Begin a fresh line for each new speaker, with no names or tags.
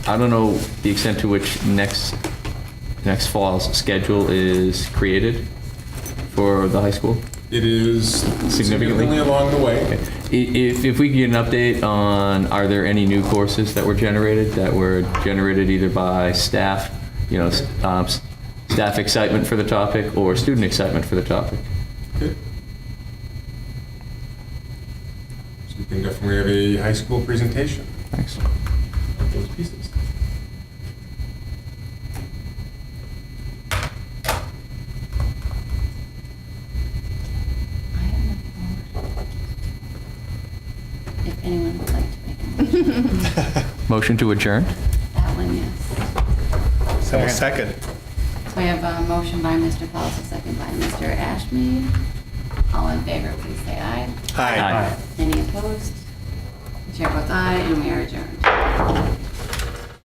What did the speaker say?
I don't know the extent to which next, next fall's schedule is created for the high school.
It is
Significantly?
significantly along the
I-
way.
If, if we could get an update on, are there any new courses that were generated, that were generated either by staff, you know, s- um, s- staff excitement for the topic or student excitement for the topic?
Okay. So we can definitely have a high school presentation
Thanks.
of those pieces.
I have nothing more. If anyone would like to make a motion,
Motion to adjourn?
that one, yes.
Someone second.
So we have a motion by Mr. Pauls, a second by Mr. Ashmead. All in favor, please say aye.
Aye.
Aye.
Any opposed? The Chair votes aye, and we are adjourned.